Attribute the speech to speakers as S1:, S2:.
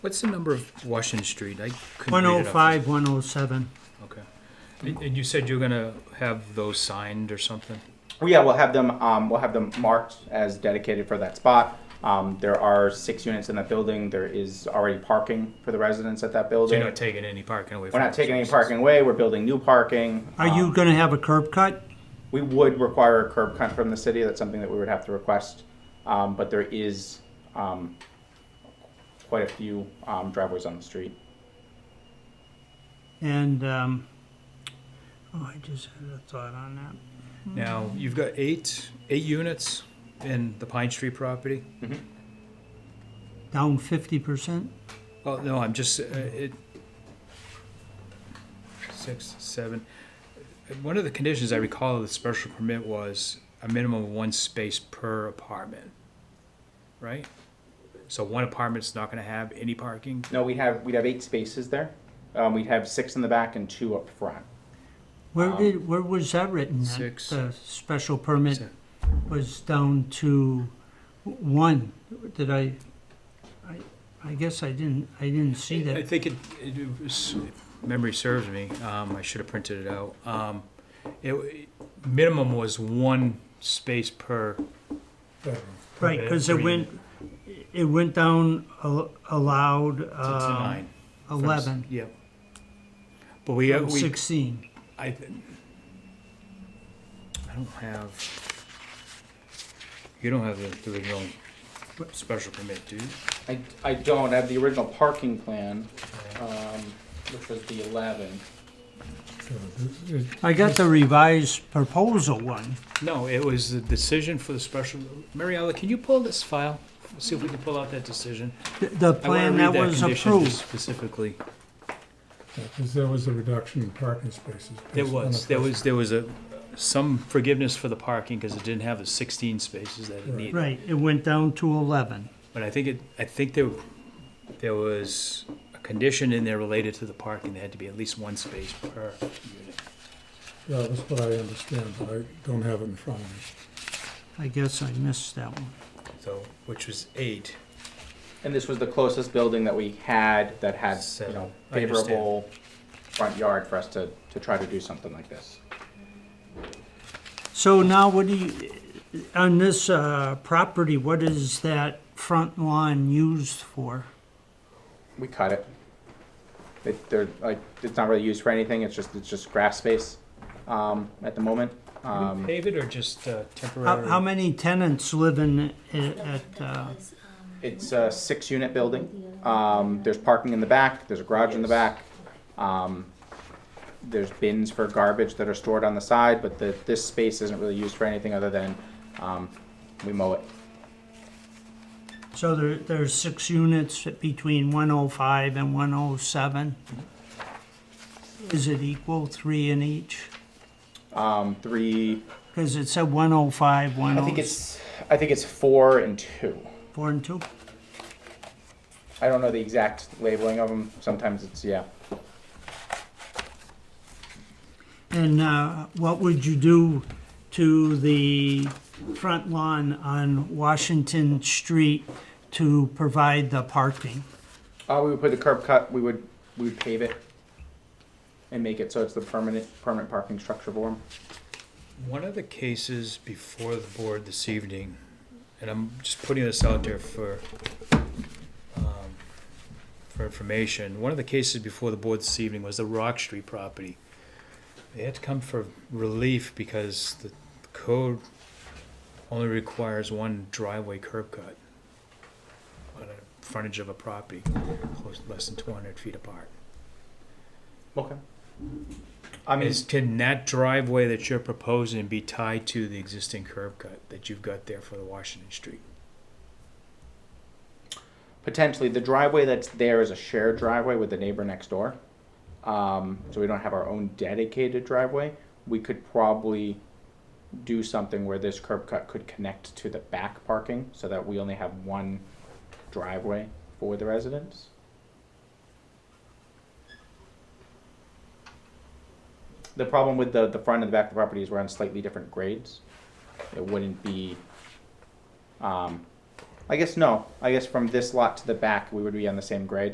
S1: What's the number of Washington Street? I couldn't
S2: One
S1: read
S2: oh
S1: it off.
S2: five, one oh seven.
S1: Okay. And and you said you're gonna have those signed or something?
S3: Well, yeah, we'll have them. Um, we'll have them marked as dedicated for that spot. Um, there are six units in that building. There is already parking for the residents at that
S1: So
S3: building.
S1: you're not taking any parking away
S3: We're
S1: from
S3: not
S1: the
S3: taking any
S1: citizens.
S3: parking away. We're building new parking.
S2: Are you
S3: Um,
S2: gonna have a curb cut?
S3: We would require a curb cut from the city. That's something that we would have to request. Um, but there is um, quite a few um, driveways on the street.
S2: And, um, oh, I just had a thought on that.
S1: Now, you've got eight, eight units in the Pine Street property?
S2: Down fifty percent?
S1: Oh, no, I'm just, uh, it, six, seven. Uh, One of the conditions I recall of the special permit was a minimum of one space per apartment, right? So one apartment's not gonna have any parking?
S3: No, we'd have we'd have eight spaces there. Um, we'd have six in the back and two up front.
S2: Where
S3: Um,
S2: did, where was that written? that
S1: Six.
S2: The special permit
S1: Se-
S2: was down to w- one. Did I, I, I guess I didn't, I didn't see
S1: I
S2: that.
S1: think it, it was, if memory serves me, um, I should have printed it out. Um, it, minimum was one space per.
S2: Right, because it
S1: per
S2: went,
S1: unit.
S2: it went down al- allowed,
S1: To- to
S2: uh,
S1: nine. From s-
S2: eleven, Oh,
S1: Yep. But we,
S2: from
S1: we,
S2: sixteen.
S1: I, th- I don't have, you don't have the, the original special permit, do you?
S3: I, I don't I have the original parking plan, um, which was the eleven.
S2: I got the revised proposal one.
S1: No, it was the decision for the special, Mariella, can you pull this file? See if we can pull out that decision.
S2: The- The
S1: I wanna
S2: plan
S1: read
S2: that was
S1: condition
S2: approved.
S1: Specifically.
S4: Because there was a reduction in parking spaces.
S1: There
S4: based on
S1: was,
S4: the
S1: there
S4: first-
S1: was, there was a, some forgiveness for the parking because it didn't have the sixteen spaces that it
S4: Right.
S1: needed.
S2: Right, it went down to 11.
S1: But I think it, I think there, there was a condition in there related to the parking, there had to be at least one space per unit.
S4: Yeah, that's what I understand, but I don't have it in front of me.
S2: I guess I missed that one.
S1: So, which was eight.
S3: And this was the closest building that we had that had, you know,
S1: Seven. I understand.
S3: favorable front yard for us to, to try to do something like this.
S2: So now what do you, on this uh, property, what is that front lawn used for?
S3: We cut it. It, they're, like, it's not really used for anything, it's just, it's just grass space, um, at the moment. Um,
S1: Pave it or just uh,
S2: How
S1: temporary?
S2: how many tenants live in, i- at, uh,
S3: it's a six-unit building, um, there's parking in the back, there's a garage in the back. Um, there's bins for garbage that are stored on the side, but the, this space isn't really used for anything other than, um, we mow it.
S2: so there, there's six units between 105 and 107? Is it equal, three in each?
S3: Um, three,
S2: Because it said 105,
S3: I think
S2: 104
S3: it's, I think it's four and two.
S2: and 2?
S3: I don't know the exact labeling of them. Sometimes it's yeah.
S2: And uh, what would you do to the front lawn on Washington Street to provide the parking?
S3: Uh, we would put the curb cut. We would we would pave it and make it so it's the permanent permanent parking structure for 'em.
S1: One of the cases before the board this evening, and I'm just putting this out there for, um, for information. One of the cases before the board this evening was the Rock Street property. They had to come for relief because the code only requires one driveway curb cut on a frontage of a property, close, less than two hundred feet apart.
S3: Okay. I mean,
S1: Is, can that driveway that you're proposing be tied to the existing curb cut that you've got there for the Washington Street?
S3: potentially the driveway that's there is a shared driveway with the neighbor next door. Um, so we don't have our own dedicated driveway. We could probably do something where this curb cut could connect to the back parking so that we only have one driveway for the residents. The problem with the, the front and the back of the property is we're on slightly different grades. It wouldn't be, um, I guess no, I guess from this lot to the back, we would be on the same grade.